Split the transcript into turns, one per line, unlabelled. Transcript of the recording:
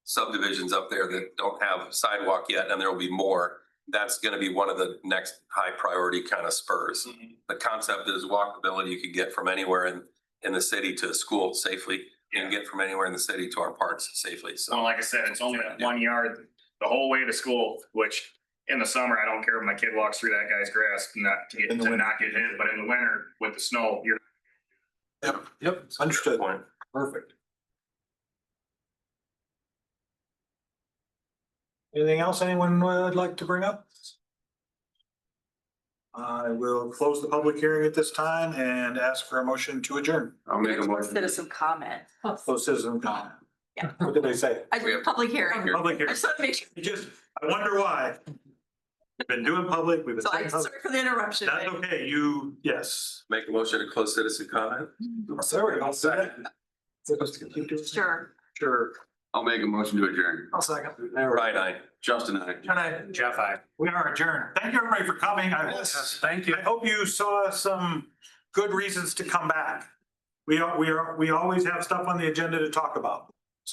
subdivisions up there that don't have sidewalk yet, and there will be more. That's gonna be one of the next high priority kind of spurs. The concept is walkability, you could get from anywhere in, in the city to school safely,
Yeah.
and get from anywhere in the city to our parks safely,
So
so.
like I said, it's only that one yard the whole way to school, which in the summer, I don't care if my kid walks through that guy's grass, not to get,
In the
to
winter.
not get hit, but in the winter with the snow, you're.
Yep, yep, understood.
Point.
Perfect. Anything else anyone would like to bring up? I will close the public hearing at this time and ask for a motion to adjourn.
I'll make a motion.
Citizen comment.
Close citizen comment.
Yeah.
What did they say?
I did a public hearing.
Public
I
hearing.
just want to make sure.
You just, I wonder why. We've Been doing public, we've been
So I'm
saying public.
sorry for the interruption.
That's okay, you, yes.
Make a motion to close citizen comment?
Sorry, I'll
Second.
Sure.
Sure.
I'll make a motion to adjourn.
I'll second.
Right, I.
Justin, I.
And I,
Jeff, I.
we are adjourned. Thank you everybody for coming. I
Thank
I hope you saw some good reasons to come back. We are, we are, we always have stuff on the agenda to talk about.